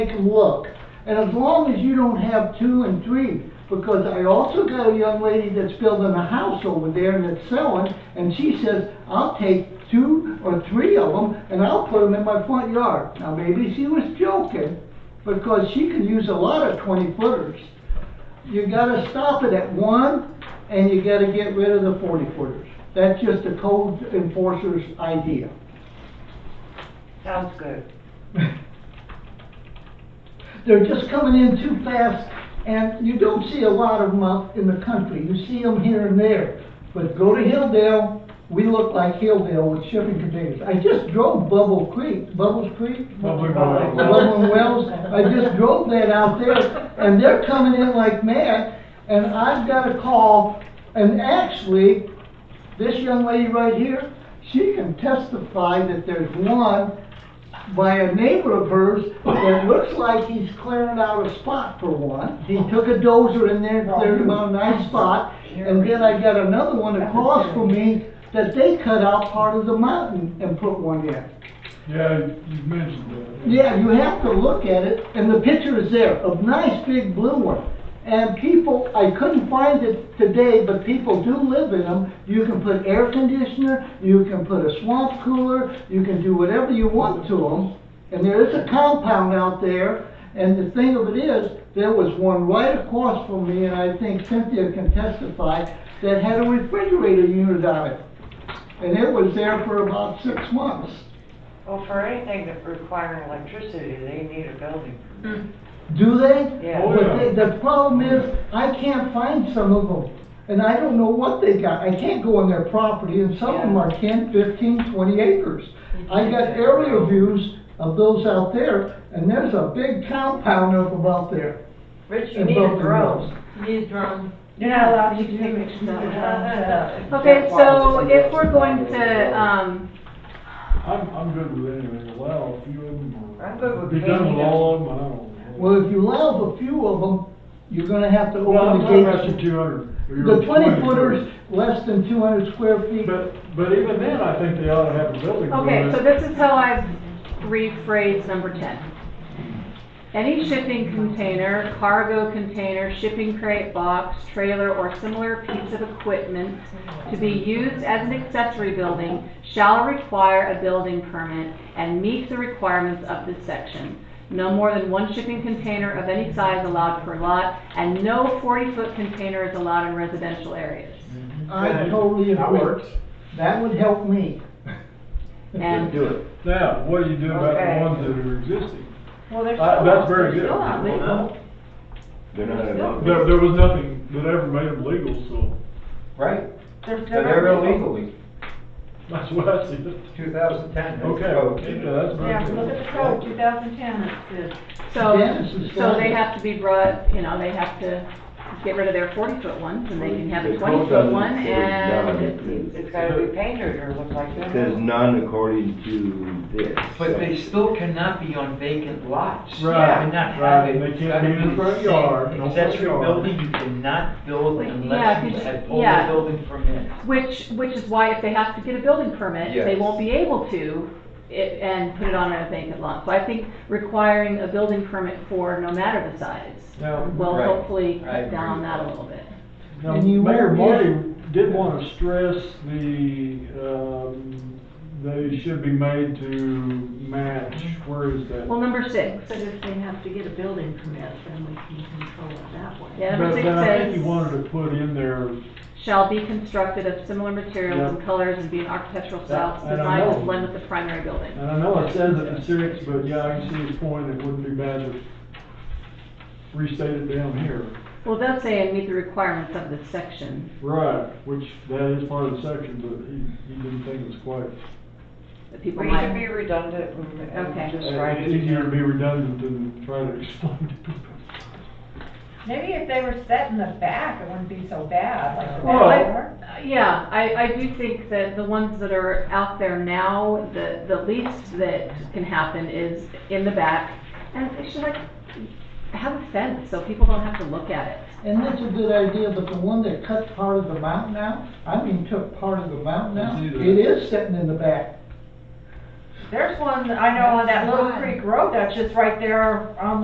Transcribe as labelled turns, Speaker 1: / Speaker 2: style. Speaker 1: take a look. And as long as you don't have two and three, because I also got a young lady that's building a house over there and it's selling, and she says, I'll take two or three of them and I'll put them in my front yard. Now, maybe she was joking, because she can use a lot of twenty footers. You gotta stop it at one, and you gotta get rid of the forty footers. That's just a code enforcer's idea.
Speaker 2: Sounds good.
Speaker 1: They're just coming in too fast, and you don't see a lot of them out in the country. You see them here and there. But go to Hilldale, we look like Hilldale with shipping containers. I just drove Bubble Creek, Bubbles Creek?
Speaker 3: Bubbling
Speaker 1: Bubble
Speaker 3: Wells.
Speaker 1: and Wells. I just drove that out there, and they're coming in like mad, and I've got a call, and actually, this young lady right here, she can testify that there's one by a neighbor of hers, that looks like he's clearing out a spot for one. He took a dozer in there, and cleared about a nice spot, and then I got another one across from me that they cut out part of the mountain and put one in.
Speaker 3: Yeah, you mentioned that.
Speaker 1: Yeah, you have to look at it, and the picture is there, a nice big blue one. And people, I couldn't find it today, but people do live in them. You can put air conditioner, you can put a swamp cooler, you can do whatever you want to them. And there is a compound out there, and the thing of it is, there was one right across from me, and I think Cynthia can testify, that had a refrigerator unit on it. And it was there for about six months.
Speaker 2: Well, for anything that requires electricity, they need a building.
Speaker 1: Do they?
Speaker 2: Yeah.
Speaker 3: Oh, yeah.
Speaker 1: But the, the problem is, I can't find some of them, and I don't know what they got, I can't go on their property, and some of them
Speaker 2: Yeah.
Speaker 1: are ten, fifteen, twenty acres. I got aerial views of those out there, and there's a big compound of them out there.
Speaker 2: Rich, you
Speaker 1: And
Speaker 2: need a
Speaker 1: building
Speaker 2: drone.
Speaker 4: These drones.
Speaker 2: You're not allowed to
Speaker 5: Okay, so if we're going to, um,
Speaker 3: I'm, I'm good with anything, allow a few of them. or-
Speaker 2: I'm good with
Speaker 3: Be done
Speaker 2: painting
Speaker 3: with all of them, I don't know.
Speaker 1: Well, if you allow a few of them, you're gonna have to
Speaker 3: Well, I'm
Speaker 1: open
Speaker 3: not
Speaker 1: the gates.
Speaker 3: rushing two hundred.
Speaker 1: The twenty footers, less than two hundred square feet,
Speaker 3: But, but even then, I think they ought to have a building.
Speaker 5: okay,
Speaker 3: permit.
Speaker 5: so this is how I've rephrased number ten. Any shipping container, cargo container, shipping crate, box, trailer, or similar piece of equipment to be used as an accessory building shall require a building permit and meet the requirements of this section. No more than one shipping container of any size allowed per lot, and no forty-foot container is allowed in residential areas.
Speaker 1: I totally
Speaker 6: That
Speaker 1: agree.
Speaker 6: works.
Speaker 1: That would help me.
Speaker 5: And
Speaker 6: Do it.
Speaker 3: Now, what do you do about
Speaker 2: Okay.
Speaker 3: the ones that are existing?
Speaker 4: Well, they're
Speaker 3: Uh,
Speaker 4: still
Speaker 3: that's
Speaker 4: out-
Speaker 3: very
Speaker 4: they're
Speaker 3: good.
Speaker 4: still out there.
Speaker 5: uh,
Speaker 6: They're not allowed.
Speaker 3: There, there was nothing that ever made them legal, so
Speaker 6: Right,
Speaker 4: They're still
Speaker 6: they're there
Speaker 4: out there.
Speaker 6: illegally,
Speaker 3: that's what I see. it.
Speaker 6: two thousand ten.
Speaker 3: Okay, well, keep that, that's very
Speaker 4: Yeah,
Speaker 3: good.
Speaker 4: look at the code, two thousand ten, it says,
Speaker 5: So,
Speaker 1: Yes, it's
Speaker 5: so they
Speaker 1: fine.
Speaker 5: have to be brought, you know, they have to get rid of their forty-foot ones, and they can have a
Speaker 7: The code
Speaker 5: twenty-foot
Speaker 7: doesn't
Speaker 5: one,
Speaker 7: say
Speaker 5: and
Speaker 7: none.
Speaker 2: It's gotta be painted or look like
Speaker 7: It
Speaker 2: that.
Speaker 7: says none according to this.
Speaker 6: But they still cannot be on vacant lots. You
Speaker 3: Right,
Speaker 6: cannot have
Speaker 3: right,
Speaker 6: it.
Speaker 3: they can't
Speaker 6: It's gotta
Speaker 3: be in the front
Speaker 6: same
Speaker 3: yard, no front
Speaker 6: Accessory
Speaker 3: yard.
Speaker 6: building you cannot build
Speaker 5: Yeah,
Speaker 6: unless you
Speaker 5: because-
Speaker 6: have all
Speaker 5: yeah.
Speaker 6: the building permit.
Speaker 5: which, which is why if they have to get a building permit, they
Speaker 6: Yes.
Speaker 5: won't be able to, i and put it on a vacant lot. So I think requiring a building permit for no matter the size,
Speaker 3: Now,
Speaker 5: will
Speaker 6: Right.
Speaker 5: hopefully
Speaker 6: I
Speaker 5: cut
Speaker 6: agree
Speaker 5: down on
Speaker 6: with
Speaker 5: that a
Speaker 6: that.
Speaker 5: little bit.
Speaker 3: Now,
Speaker 1: And you
Speaker 3: Mayor
Speaker 1: won't
Speaker 3: Marty did want to stress the, um, they should be made to match, where is that?
Speaker 5: Well, number six,
Speaker 4: but if they have to get a building permit, then we can control it that way.
Speaker 5: yeah,
Speaker 3: But-
Speaker 5: number six
Speaker 3: But I think you
Speaker 5: says,
Speaker 3: wanted to put in there,
Speaker 5: shall be constructed of similar materials and
Speaker 3: Yeah.
Speaker 5: colors and be an architectural
Speaker 3: That-
Speaker 5: style
Speaker 3: I don't
Speaker 5: designed to
Speaker 3: know.
Speaker 5: blend with the primary building.
Speaker 3: and I know it says it in six, but yeah, I can see his point, it wouldn't be bad to restate it down here.
Speaker 5: Well, it does say and meet the requirements of this section.
Speaker 3: Right, which that is part of the section, but he, he didn't think it was quite.
Speaker 5: that people
Speaker 2: We should be
Speaker 5: might.
Speaker 2: redundant and-
Speaker 5: Okay.
Speaker 2: and just write
Speaker 3: It's
Speaker 2: it.
Speaker 3: easier to be redundant than try to explain to people.
Speaker 8: Maybe if they were set in the back, it wouldn't be so bad, like the
Speaker 3: Well-
Speaker 8: back door.
Speaker 5: Uh, Yeah, I, I do think that the ones that are out there now, the, the least that can happen is in the back. And they should like have a fence so people don't have to look at it.
Speaker 1: And that's a good idea, but the one that cut part of the mountain out, I mean, took part of the mountain
Speaker 3: I
Speaker 1: out,
Speaker 3: see that.
Speaker 1: it is sitting in the back.
Speaker 6: There's one, I know on that Little Creek Road, that's just right there on